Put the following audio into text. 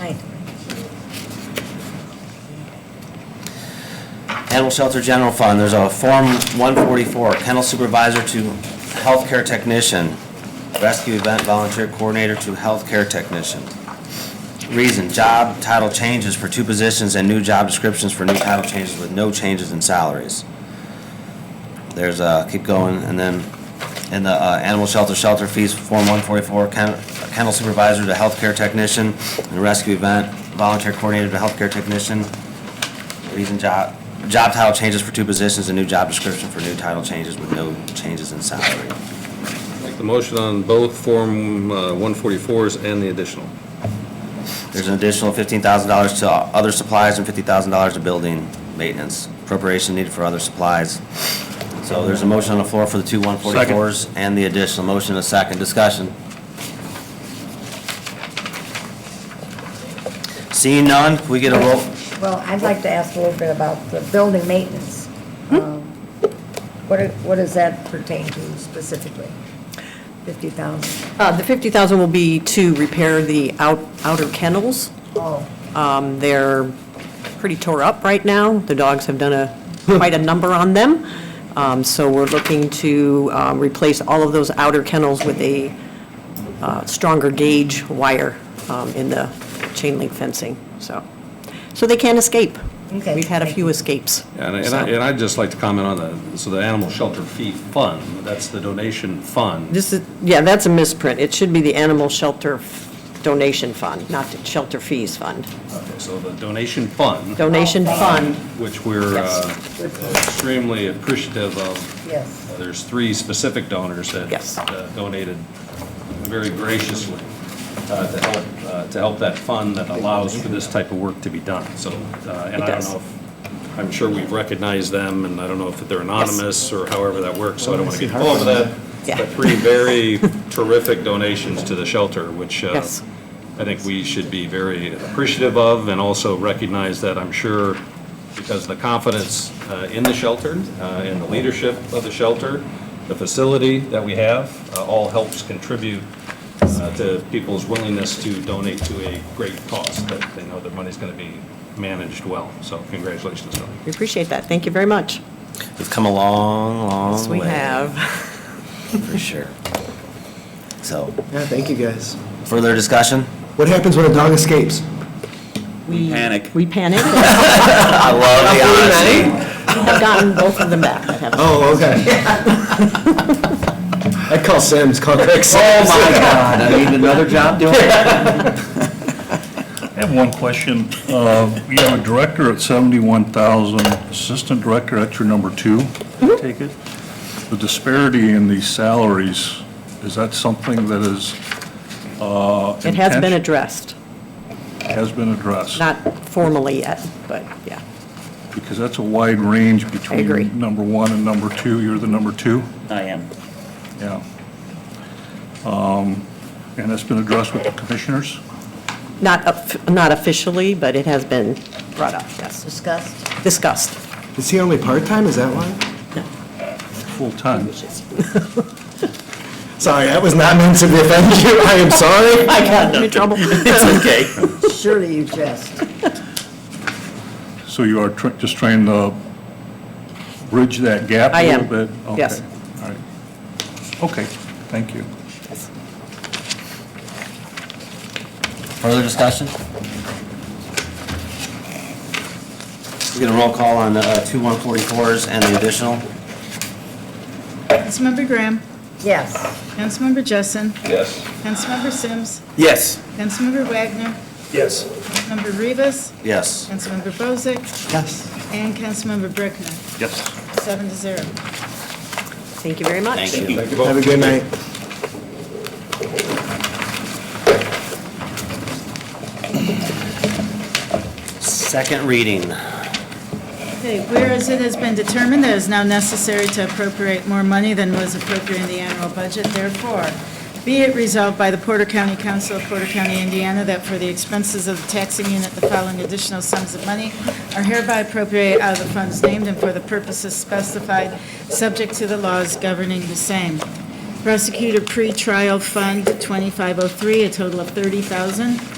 Aye. Animal Shelter General Fund, there's a Form 144, kennel supervisor to healthcare technician, rescue event volunteer coordinator to healthcare technician. Reason, job title changes for two positions and new job descriptions for new title changes with no changes in salaries. There's, uh, keep going, and then in the uh, Animal Shelter Shelter Fees, Form 144, ken- kennel supervisor to healthcare technician, and rescue event volunteer coordinator to healthcare technician. Reason job, job title changes for two positions, a new job description for new title changes with no changes in salary. Make the motion on both Form uh, 144s and the additional. There's an additional fifteen thousand dollars to other supplies and fifty thousand dollars to building maintenance. Appropriation needed for other supplies. So there's a motion on the floor for the two one forty-fours and the additional motion, and a second discussion. Seeing none, can we get a roll? Well, I'd like to ask a little bit about the building maintenance. Um, What, it- what does that pertain to specifically? 50,000? Uh, The 50,000 will be to repair the out outer kennels. Oh, Um, They're pretty tore up right now. The dogs have done a, quite a number on them. Um, So we're looking to um, replace all of those outer kennels with a uh, stronger gauge wire um, in the chain link fencing, so. So they can't escape. Okay, We've had a thank few escapes. And I- and I- and I'd just like to comment on the, so the Animal Shelter Fee Fund, that's the donation fund. This is, yeah, that's a misprint. It should be the Animal Shelter Donation Fund, not the Shelter Fees Fund. Okay, So the donation fund, Donation Fund. which we're uh, Yes. extremely appreciative of. yes. Uh, There's three specific donors that Yes. uh, donated very graciously uh, to help, uh, to help that fund that allows for this type of work to be done. So, uh, and It I don't does. know, if I'm sure we've recognized them, and I don't know if they're anonymous or however that works, so I don't want to get involved with that. Yeah. But three very terrific donations to the shelter, which uh, Yes. I think we should be very appreciative of, and also recognize that, I'm sure, because the confidence uh, in the shelter, uh, in the leadership of the shelter, the facility that we have, uh, all helps contribute uh, to people's willingness to donate to a great cause, that they know their money's going to be managed well. So congratulations, Tony. We appreciate that. Thank you very much. We've come a long, long way. Yes, we have. For sure. So, Yeah, thank you guys. further discussion? What happens when a dog escapes? We panic. We panic. We I love the honesty. have gotten both of them back. that have- Oh, okay. I call Sims, call Craig Oh, Sims. my God, I need another job doing it. I have one question. Uh, You have a director at 71,000, assistant director at your number two, I Mm-hmm. take it? The disparity in these salaries, is that something that is? uh, It has been intention- addressed, Has been addressed? not formally yet, but yeah. Because that's a wide range between. agree. Number one and number two. You're the number two? I am. Yeah. Um, And that's been addressed with the commissioners? Not, of- not officially, but it has been brought up, yes, Discussed? discussed. Is he only part-time, is that why? Full-time? Sorry, that was not meant to offend you, I am sorry. I got in trouble. Okay. Surely you jest. So you are tr- just trying to bridge that gap I a am. little bit? Yes. Okay, all right. Okay, thank you. Further discussion? We get a roll call on the uh, two 144s and the additional? Councilmember Graham, Yes. Councilmember Jessen, Yes. Councilmember Sims, Yes. Councilmember Wagner, Yes. Councilmember Rivas, Yes. Councilmember Bozick, Yes. and Councilmember Brickner, Yes. seven to zero. Thank you very much. Thank you. Thank you both. Have a good night. Second reading. Okay, whereas it has been determined that it is now necessary to appropriate more money than was appropriate in the annual budget, therefore, be it resolved by the Porter County Council of Porter County, Indiana, that for the expenses of the taxing unit, the following additional sums of money are hereby appropriated out of the funds named and for the purposes specified, subject to the laws governing the same. oh Prosecutor Pretrial Fund, 2503, a total of 30000